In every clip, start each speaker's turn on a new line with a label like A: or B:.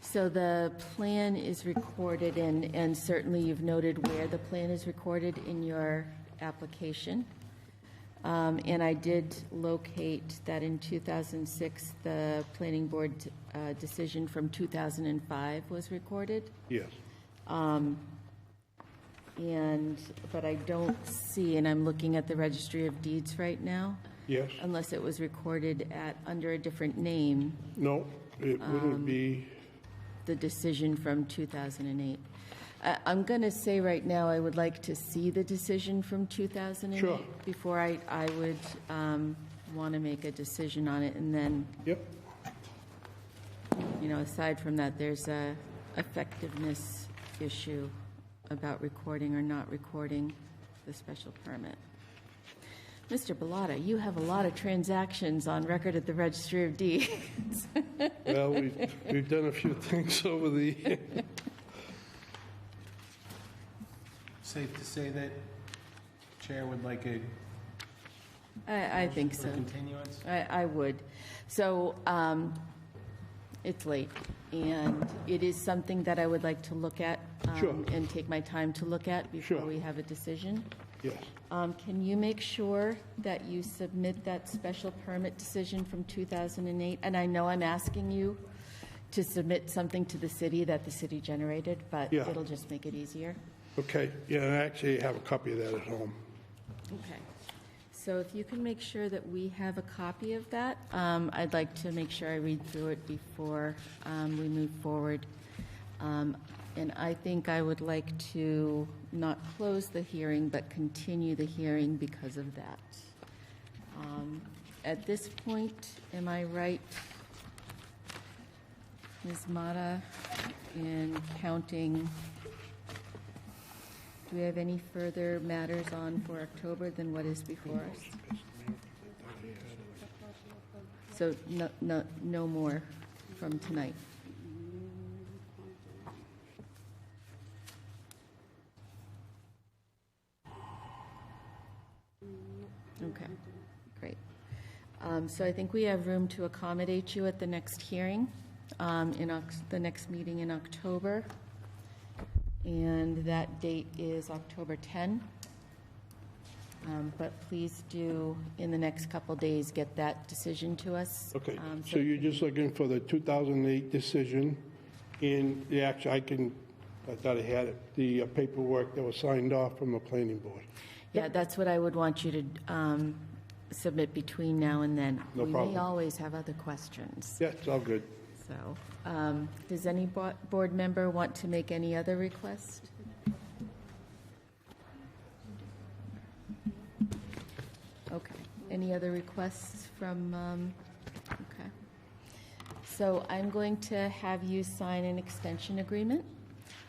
A: So the plan is recorded, and, and certainly you've noted where the plan is recorded in your application. Um, And I did locate that in 2006, the planning board uh, decision from 2005 was recorded.
B: Yes.
A: And, but I don't see, and I'm looking at the Registry of Deeds right now,
B: Yes.
A: unless it was recorded at, under a different name,
B: No, it wouldn't be,
A: the decision from 2008. I- I'm going to say right now, I would like to see the decision from 2008.
B: Sure.
A: Before I, I would want to make a decision on it. And then,
B: yep,
A: you know, aside from that, there's a effectiveness issue about recording or not recording the special permit. Mr. Bellotta, you have a lot of transactions on record at the Registry of Deeds.
B: well, we've, we've done a few things over the,
C: Safe to say that Chair would like a
A: I, I think
C: for
A: so.
C: continuance?
A: I, I would. So um, it's late, and it is something that I would like to look at um,
B: Sure.
A: and take my time to look at before
B: Sure.
A: we have a decision.
B: yes,
A: Um, Can you make sure that you submit that special permit decision from 2008? And I know I'm asking you to submit something to the city that the city generated, but
B: Yeah.
A: it'll just make it easier.
B: okay. Yeah, I actually have a copy of that at home.
A: Okay. So if you can make sure that we have a copy of that, um, I'd like to make sure I read through it before um, we move forward. Um, And I think I would like to not close the hearing, but continue the hearing because of that. Um, At this point, am I right, Ms. Mata, in counting do we have any further matters on for October than what is before us? So no, no, no more from tonight. Okay, great. Um, So I think we have room to accommodate you at the next hearing, um, in, Oc- the next meeting in October. And that date is October 10. Um, But please do, in the next couple days, get that decision to us.
B: Okay,
A: um,
B: so you're just looking for the 2008 decision and the act, I can, I thought I had it, the uh, paperwork that was signed off from the planning board.
A: Yeah, that's what I would want you to um, submit between now and then.
B: No
A: We
B: problem.
A: may always have other questions,
B: Yeah, it's all good.
A: so. um, Does any bo- board member want to make any other request? Okay, any other requests from, um, okay. So I'm going to have you sign an extension agreement.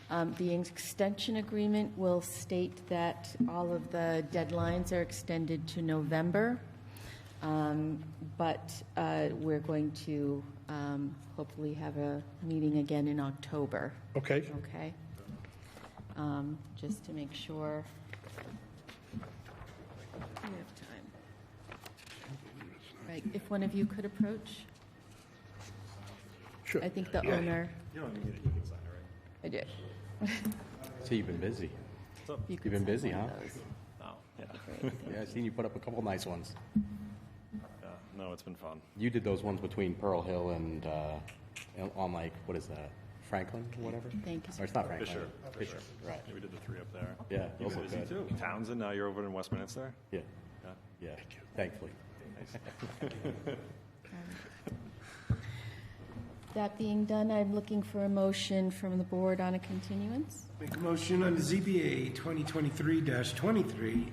A: Um, The extension agreement will state that all of the deadlines are extended to November, Um, but uh, we're going to um, hopefully have a meeting again in October,
B: Okay,
A: okay? Um, Just to make sure we have time. Right, if one of you could approach.
B: sure.
A: I think the
B: Yeah.
A: owner. I did.
D: So you've been busy.
A: You've
D: Oh, been busy, huh?
E: Oh, yeah.
D: Yeah, I've seen you put up a couple nice ones.
E: yeah. No, it's been fun.
D: You did those ones between Pearl Hill and uh, and on like what is that Franklin or whatever?
A: Thank you, sir.
D: Or it's not Franklin.
E: Fisher.
D: Fisher. Right.
E: Yeah, we did the three up there.
D: Yeah,
E: You've
D: those
E: been
D: look
E: busy
D: good.
E: too. Townsend, now you're over in Westminster?
D: Yeah.
E: Yeah.
D: Yeah. Thankfully.
A: That being done, I'm looking for a motion from the board on a continuance.
C: Make a motion on the ZBA 2023-23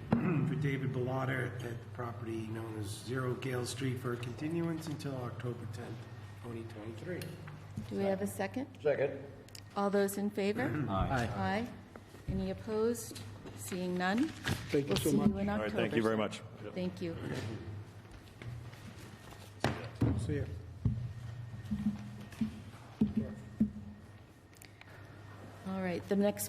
C: for David Bellotter at the property known as Zero Gale Street for a continuance until October 10th, 2023.
A: Do we have a second? Second. All those in favor? Aye. Aye. Any opposed? Seeing none?
B: Thank you so
A: We'll
B: much.
A: see you in
E: All
A: October.
E: right, thank you very
A: sir.
E: much.
A: Thank you.
C: So, yeah.
A: All right, the next